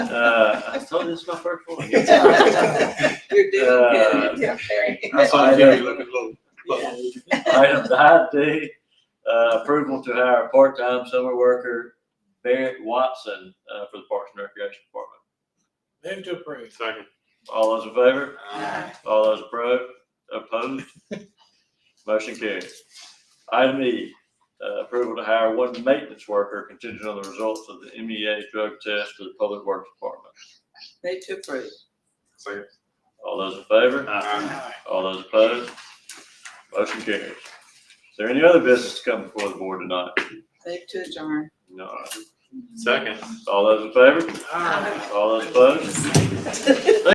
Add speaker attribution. Speaker 1: Uh, I told you this is my first one.
Speaker 2: You're doing
Speaker 1: Uh,
Speaker 2: good. Yeah, Barry.
Speaker 3: I saw you looking a little.
Speaker 1: Item nine D, uh, approval to hire a part-time summer worker Barrett Watson, uh, for the Parks and Recreation
Speaker 4: Move
Speaker 1: Department.
Speaker 4: to approve.
Speaker 3: Second.
Speaker 1: All those in favor?
Speaker 2: Aye.
Speaker 1: All those appro- opposed? Motion carries. Item E, uh, approval to hire one maintenance worker contingent on the results of the MEA drug test for the Public Works Department.
Speaker 2: Move to approve.
Speaker 3: Second.
Speaker 1: All those in favor?
Speaker 3: Aye.
Speaker 4: Aye.
Speaker 1: All those opposed? Motion carries. Is there any other business to come before the board tonight?
Speaker 2: Move to adjourn.
Speaker 1: No.
Speaker 3: Second.
Speaker 1: All those in favor?
Speaker 4: Aye.
Speaker 1: All those opposed?